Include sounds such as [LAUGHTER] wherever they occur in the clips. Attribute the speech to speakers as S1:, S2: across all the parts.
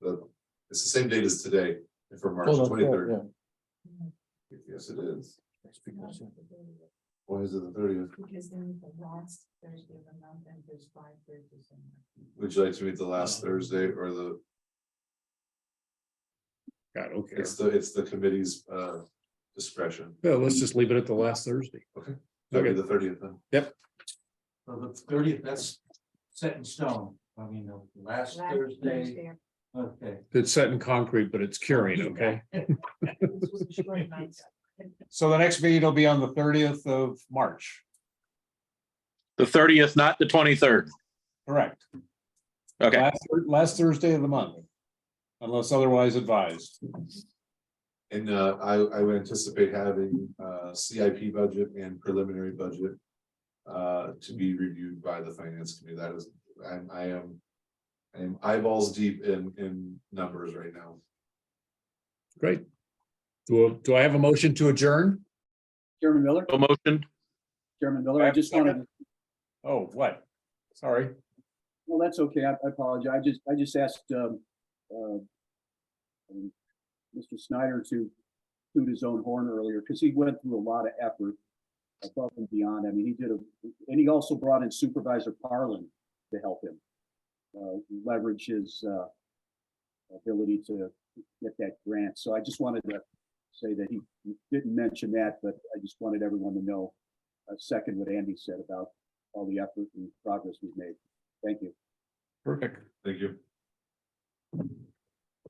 S1: the, it's the same date as today, for March
S2: Well, that's right,
S1: twenty-third.
S2: yeah.
S1: Yes, it is.
S2: because-
S1: Why is it the thirtieth?
S3: Because then the last Thursday of the month and there's five Thursdays in there.
S1: Would you like to meet the last
S2: Oh.
S1: Thursday or the,
S4: God, okay.
S1: it's the, it's the committee's uh discretion.
S4: Yeah, let's just leave it at the last Thursday.
S1: That'd
S4: Okay.
S1: be the thirtieth then.
S5: So the thirtieth, that's set in stone. I mean, the last
S3: Last
S5: Thursday,
S3: Thursday.
S5: okay.
S4: It's set in concrete, but it's curing, okay?
S3: This was
S5: [LAUGHS]
S3: a short night.
S2: So the next meeting will be on the thirtieth of March,
S6: The thirtieth, not the twenty-third.
S2: correct?
S6: Okay,
S2: Last, Thur- last Thursday of the month. Unless otherwise advised.
S1: And uh, I, I would anticipate having uh CIP budget and preliminary budget. Uh, to be reviewed by the finance committee, that is, I'm, I am. I am eyeballs deep in, in numbers right now.
S4: Great. Do, do I have a motion to adjourn?
S7: Chairman Miller,
S6: no motion.
S7: Chairman Miller, I just wanted, to-
S2: Oh, what? Sorry.
S7: well, that's okay. I I apologize. I just, I just asked, um, uh, um, Mr. Snyder to toot his own horn earlier because he went through a lot of effort above and beyond. I mean, he did a, and he also brought in Supervisor Parlin to help him uh, leverage his, uh, ability to get that grant. So I just wanted to say that he didn't mention that, but I just wanted everyone to know a second what Andy said about all the effort and progress we've made. Thank you.
S4: Perfect.
S1: Thank you.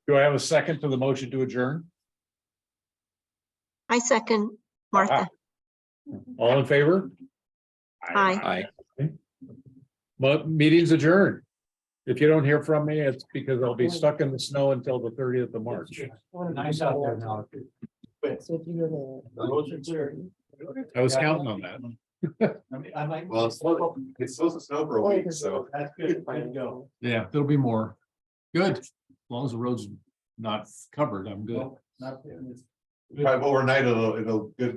S2: Do I have a second to the motion to adjourn?
S8: I second Martha.
S4: All in favor?
S8: Aye.
S6: Aye.
S4: Mo- meeting's adjourned. If you don't hear from me, it's because I'll be stuck in the snow until the thirtieth of March.
S5: Nice out there now.
S3: So if you go to.
S4: I was counting on that.
S5: I mean, I might.
S1: Well, it's it's supposed to snow for a week, so.
S5: That's good, way to go.
S4: Yeah, there'll be more. Good. As long as the road's not covered, I'm good.
S5: Not-
S1: Probably overnight, it'll, it'll, good